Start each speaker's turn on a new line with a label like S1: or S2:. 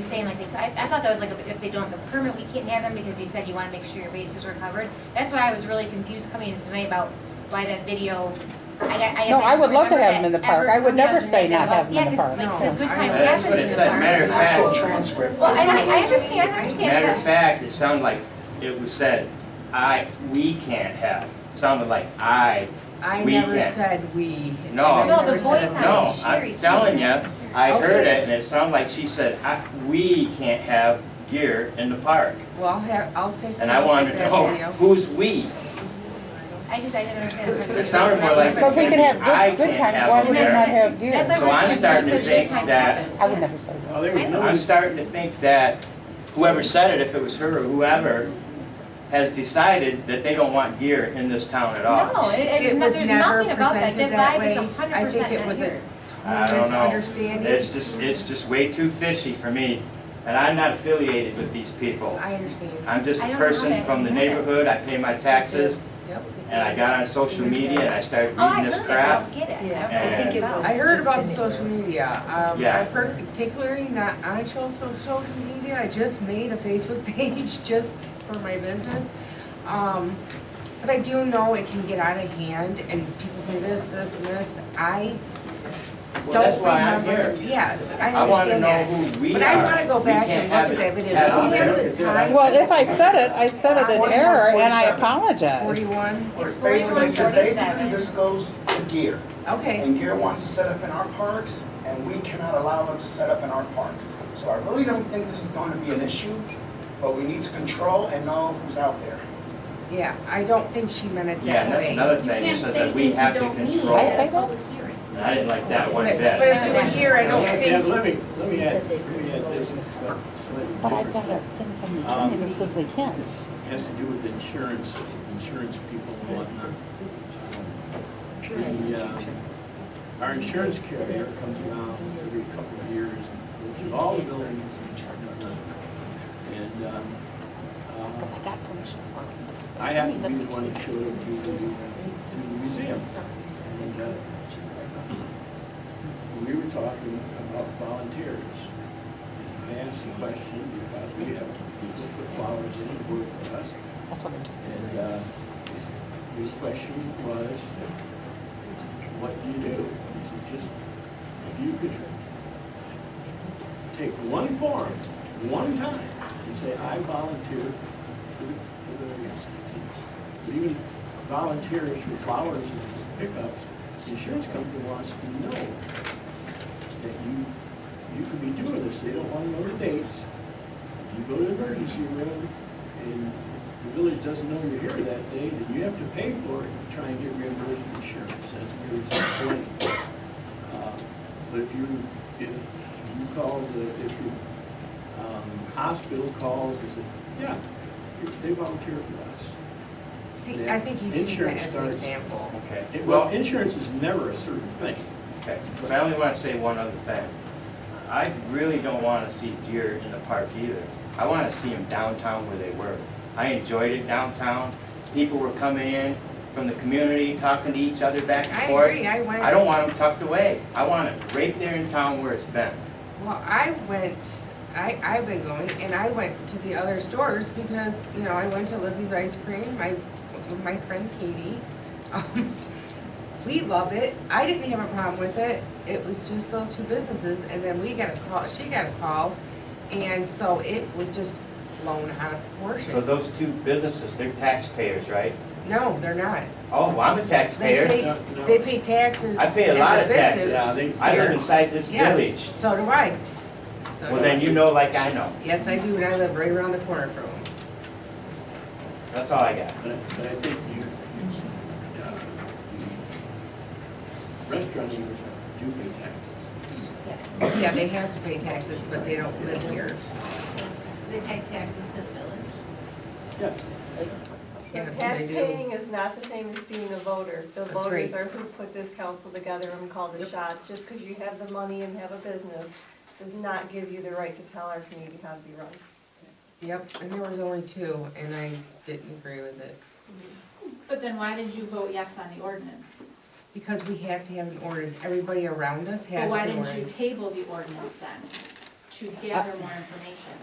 S1: You're Saying like, they- I, I thought that was like, if they don't have a permit, we can't have them because you said you want to make sure your bases were covered. That's why I was really confused coming in tonight about why that video, I, I guess I
S2: No, I
S1: just
S2: would love to
S1: remembered
S2: have 'em in the
S1: that
S2: park.
S1: ever
S2: I would never
S1: coming out
S2: say
S1: tonight
S2: not
S1: that
S2: have 'em in the
S1: was-
S2: park.
S1: Yeah, because
S3: No.
S1: good times
S3: That's
S1: happens in
S3: what it
S1: the
S3: said,
S1: park.
S3: matter of fact-
S4: Actual transcript.
S1: Well, and I, I understand, I understand
S3: Matter
S1: that.
S3: of fact, it sounded like it was said, I, we can't have. It sounded like I,
S4: I
S3: We
S4: never
S3: can.
S4: said we.
S3: No.
S4: I
S3: No,
S1: the
S4: never said
S1: voice
S4: we.
S1: on it.
S3: no,
S1: Sherry
S3: I'm
S1: said
S3: telling you,
S1: that.
S3: I heard
S4: Okay.
S3: it and it sounded like she said, I, we can't have gear in the park.
S4: Well, I'll have, I'll take.
S3: And I wanted to know, who's we?
S1: I just, I didn't understand. the
S3: It sounded more like.
S2: But we can have
S3: I
S2: good, good
S3: can't
S2: times,
S3: have
S2: why
S3: them
S2: would we
S3: there.
S2: not have deer?
S1: That's why
S3: So
S1: we're
S3: I'm
S1: just
S3: starting to
S1: confused
S3: think
S1: because good times
S3: that-
S1: happens.
S2: I would never say that.
S5: Well, there was no,
S3: I'm starting to think that whoever said it, if it was her or whoever, has decided that they don't want gear in this town at all.
S1: No, it, it,
S4: It
S1: no,
S4: was
S1: there's
S4: never
S1: nothing about that, that
S4: presented that
S1: vibe is
S4: way.
S1: hundred
S4: I think
S1: percent
S4: it
S1: not
S4: was a-
S1: here.
S3: I don't know.
S4: Misunderstanding.
S3: It's just, it's just way too fishy for me, and I'm not affiliated with these people.
S4: I understand.
S3: I'm just
S1: I
S3: a
S1: don't know
S3: person
S1: that.
S3: from the neighborhood, I pay my taxes,
S4: Yep.
S3: and I got on social media and I started
S1: Oh, I
S3: reading
S1: heard
S3: this
S1: it, I
S3: crap.
S1: don't get it. I
S6: Yeah.
S1: don't know what it's
S3: And-
S1: about.
S4: I heard about the social media. Um,
S3: Yeah.
S4: I particularly not on social, social media. I just made a Facebook page just for my business. Um, but I do know it can get out of hand and people say this, this, and this. I
S3: Well, that's
S4: don't
S3: why I'm
S4: remember.
S3: here.
S4: Yes, I
S3: I want to
S4: understand
S3: know
S4: that.
S3: who we are.
S4: But I wanna go
S3: We
S4: back
S3: can't
S4: and look
S3: have
S4: at
S3: it-
S4: that video.
S3: have
S4: Do we
S3: it
S4: have
S3: there.
S4: the time?
S2: Well, if I said it, I said it in error, and I apologize.
S4: Forty-one,
S1: It's
S5: basically, so
S1: 41,
S5: basically
S1: 47.
S5: this goes to Gear.
S4: okay.
S5: And Gear wants to set up in our parks, and we cannot allow them to set up in our parks. So I really don't think this is going to be an issue, but we need to control and know who's out there.
S4: Yeah, I don't think she meant it
S3: Yeah,
S4: that
S3: and that's
S4: way.
S3: another
S7: You
S3: thing, you
S7: can't
S3: said
S7: say
S3: that we
S7: things
S3: have
S7: you
S3: to
S7: don't need
S3: control.
S2: I say
S7: at a
S2: that?
S7: public hearing.
S3: And I didn't like that one
S4: But but
S3: bit.
S4: if it were here, I don't
S5: Yeah,
S4: think,
S5: let me,
S6: Let me add, let me add this, uh,
S2: But I got a thing from the attorney that says they can.
S6: has to do with insurance, insurance people and whatnot. The, uh, Our insurance carrier comes around every couple of years, and goes through all the buildings and whatnot. And, um, uh,
S2: Because I got permission from him.
S6: I happened to be the one that showed it to the, to the museum. And, uh, We were talking about volunteers. And I asked the question because we have people put flowers in the work for us.
S2: That's what I just said.
S6: And uh, the question was, what do you do? He said, just, if you could take one form, one time, and say, I volunteer for the, for the, even volunteers for flowers and pickups, the insurance company wants to know that you, you could be doing this, they don't want to know the dates. If you go to the emergency room and the village doesn't know you're here that day, then you have to pay for it and try and get reimbursed from insurance, that's your responsibility. Uh, But if you, if you call the, if your um, hospital calls and says, yeah, they volunteer for us.
S4: see, I think he's using that as an example.
S3: Okay,
S6: It- Well, insurance is never a certain thing.
S3: Okay, but I only want to say one other thing. I really don't want to see deer in the park either. I want to see them downtown where they were. I enjoyed it downtown. People were coming in from the community, talking to each other back
S4: I
S3: and forth.
S4: agree, I went.
S3: I don't want them tucked away. I want it right there in town where it's been.
S4: Well, I went, I, I've been going, and I went to the other stores because, you know, I went to Libby's Ice Cream, my, with my friend Katie. Um, We love it. I didn't have a problem with it. It was just those two businesses, and then we got a call, she got a call, and so it was just blown out of
S3: So
S4: proportion.
S3: those two businesses, they're taxpayers, right?
S4: No, they're not.
S3: Oh, well, I'm a
S4: They
S3: taxpayer.
S4: pay,
S6: No, no.
S4: they pay taxes
S3: I
S4: as
S3: pay a lot
S4: a
S3: of taxes.
S6: Yeah,
S4: business.
S6: they-
S3: I live inside this
S4: Yes,
S3: village.
S4: so do I. So
S3: Well,
S4: do I.
S3: then you know like I know.
S4: Yes, I do, and I live right around the corner from them.
S3: That's all I got.
S6: But I, but I think you, you, uh, the restaurants do pay taxes.
S4: Yeah, they have to pay taxes, but they don't live here.
S8: They pay taxes to the village.
S6: Yes.
S4: Yes, they do.
S7: Taxpaying is not the same as being a voter. The
S4: That's
S7: voters
S4: right.
S7: are who put this council together and call the
S4: Yep.
S7: shots. Just because you have the money and have a business does not give you the right to tell our community how to be run.
S4: Yep, and there was only two, and I didn't agree with it.
S8: But then why did you vote yes on the ordinance?
S4: Because we have to have an ordinance. Everybody around us
S8: But
S4: has
S8: why
S4: an
S8: didn't you
S4: ordinance.
S8: table the ordinance then? to gather more information.